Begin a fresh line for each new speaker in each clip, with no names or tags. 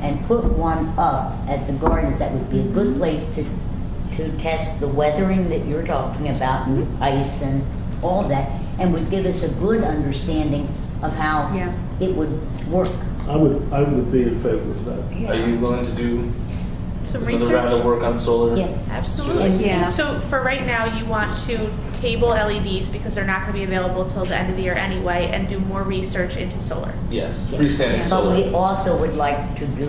and put one up at the gardens, that would be a good place to, to test the weathering that you're talking about and ice and all that, and would give us a good understanding of how
Yeah.
it would work.
I would, I would be in favor of that.
Are you willing to do
Some
another round of
research?
work on solar?
Yeah.
Absolutely.
Yeah.
So for right now, you want to table LEDs because they're not going to be available till the end of the year anyway and do more research into solar.
Yes, freestanding
But we
solar.
also would like to do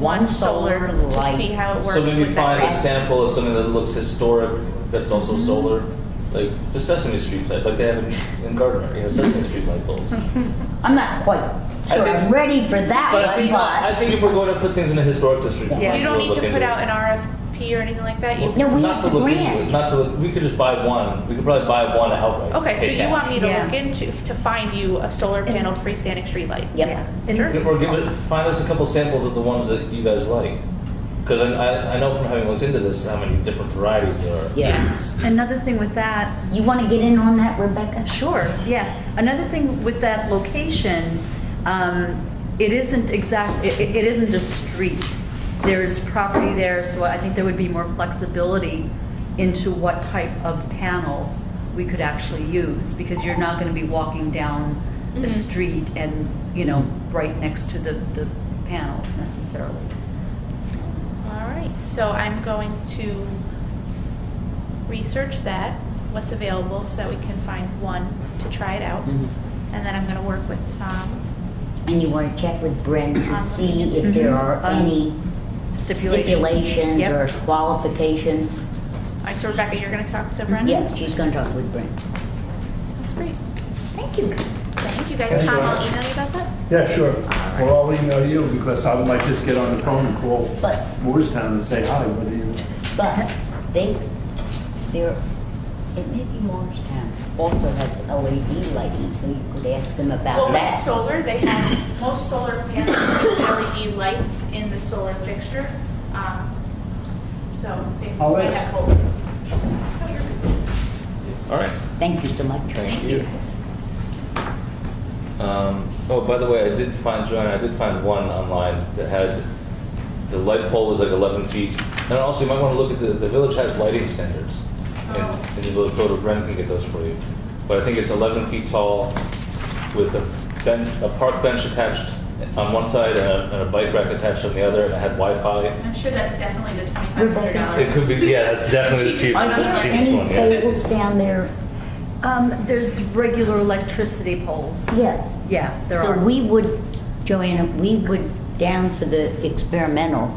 one solar
To see
light.
how it works
So maybe
with that
find a
graph. Mm-hmm.
sample of something that looks historic that's also solar, like the Sesame Street type, like they have in- in Gardner, you know, Sesame Street light bulbs.
I'm not quite
I
sure
think-
I'm ready for that
But I
one,
think, I
but.
think if we're going to put things in a historic district, we
Yeah.
might as
You
well
don't need
look
to
into
put
it.
out an RFP or anything like that. You,
No, we
Not
have
to
the
look into
grant.
it, Not to look, we could just buy one. We could probably buy one outright.
okay, so
pay
you
cash.
want me to
Yeah.
look into, to find you a solar paneled freestanding streetlight?
Yep.
And-
Or give it, find us a couple samples of the ones that you guys like. Because I, I, I know from having looked into this how many different varieties there are.
Yes.
Another thing with that
You want to get in on that, Rebecca?
Sure, yes. Another thing with that location, um, it isn't exact, it, it isn't a street. There is property there, so I think there would be more flexibility into what type of panel we could actually use, because you're not gonna be walking down the
Mm-hmm.
Mhm.
street and, you know, right next to the, the panels necessarily.
All right, so I'm going to research that, what's available, so that we can find one to try it out.
Mhm.
And then I'm gonna work with um, Tom.
And you want to check with Brent to see if there are
Mhm.
any stipulations
Yep.
or qualifications.
All right, so Rebecca, you're gonna talk to Brendan?
Yeah, she's going to talk with Brent.
That's great.
Thank you.
Thank you guys.
Thank
Tom,
you.
I'll email you about that.
Yeah, sure. Well, I'll email you because I might just get on the phone and call
But-
Moorestown and say hi. What do you?
But they, they're, it may be Morristown also has LED lighting, so you could ask them
Well,
about
with
that.
solar, they have, most solar panels have LED lights in the solar fixture. um, So they
I'll
they
ask.
have both. No, you're good.
All right.
Thank you so much.
Thank you. Um, oh, by the way, I did find, Joanna, I did find one online that had, the light pole was like 11 feet. And also, you might want to look at the, the village has lighting standards.
Oh.
And, and the little photo, Bren can get those for you. But I think it's 11 feet tall with a bench, a park bench attached on one side and a, and a bike rack attached on the other, and it had Wi-Fi.
I'm sure that's definitely the twenty-five hundred dollars.
It could be, yeah, that's definitely the cheapest,
Are
the
there
cheapest
any
one, yeah.
tables down there?
Um, there's regular electricity poles.
Yeah.
Yeah, there
So
are.
we would, Joanna, we would, down for the experimental,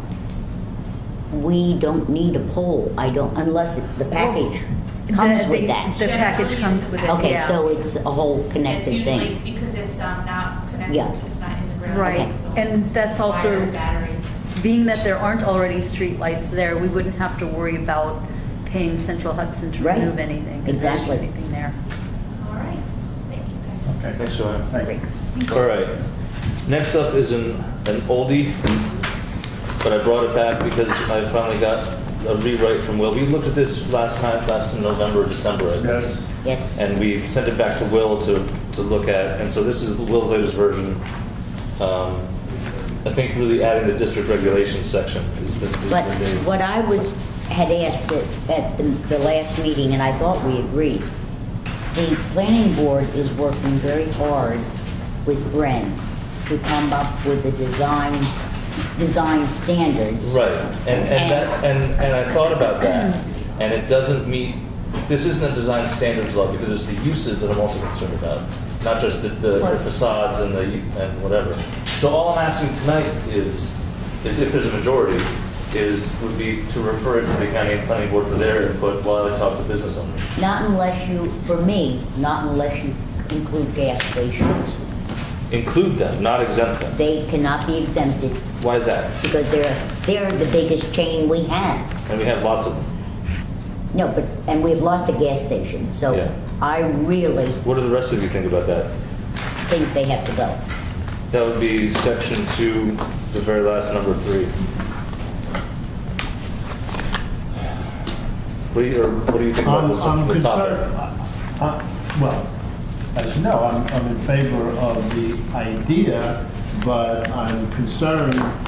we don't need a pole, I don't, unless the package comes
The-
with
the- The
that.
package comes with it, yeah.
Okay, so it's a whole
It's
connected
usually
thing.
because it's um, not
Yeah.
connected, to- it's not in the ground.
Right,
it's a
and that's also-
wire Battery.
Being that there aren't already streetlights there, we wouldn't have to worry about paying Central Hudson to
Right.
remove anything. 'cause there isn't
Exactly.
Anything there.
All right, thank you guys.
Okay,
Thanks, Joanna.
thank you.
All right. Next up is an, an oldie, but I brought it back because I finally got a rewrite from Will. We looked at this last time, last November, or December, I think
Yes,
Yes,
and we sent it back to Will to, to look at. And so this is Will's latest version. Um, I think really adding the district regulations section is the, is the
but
big-
what I was, had asked at, at the, the last meeting, and I thought we agreed, the planning board is working very hard with Bren to come up with the design, design standards.
Right, and, and that, and, and I thought about that, and it doesn't meet, this isn't a design standards law, because it's the uses that I'm also concerned about, not just the, the the facades and the, and whatever. So all I'm asking tonight is, is if there's a majority, is, would be to refer it to the county and planning board for their input while I talk to business owners.
Not unless you, for me, not unless you include gas stations.
Include them, not exempt them.
They cannot be exempted
Why is that?
because they're, they're the biggest chain we have.
And we have lots of them.
No, but, and we have lots of gas stations, so
Yeah.
I really
What do the rest of you think about that?
think they have to go.
That would be section two, the very last number three. What do you, or what do you think about
I'm,
this
I'm
the
concerned,
topic?
I- I- well, as you know, I'm, I'm in favor of the idea, but I'm concerned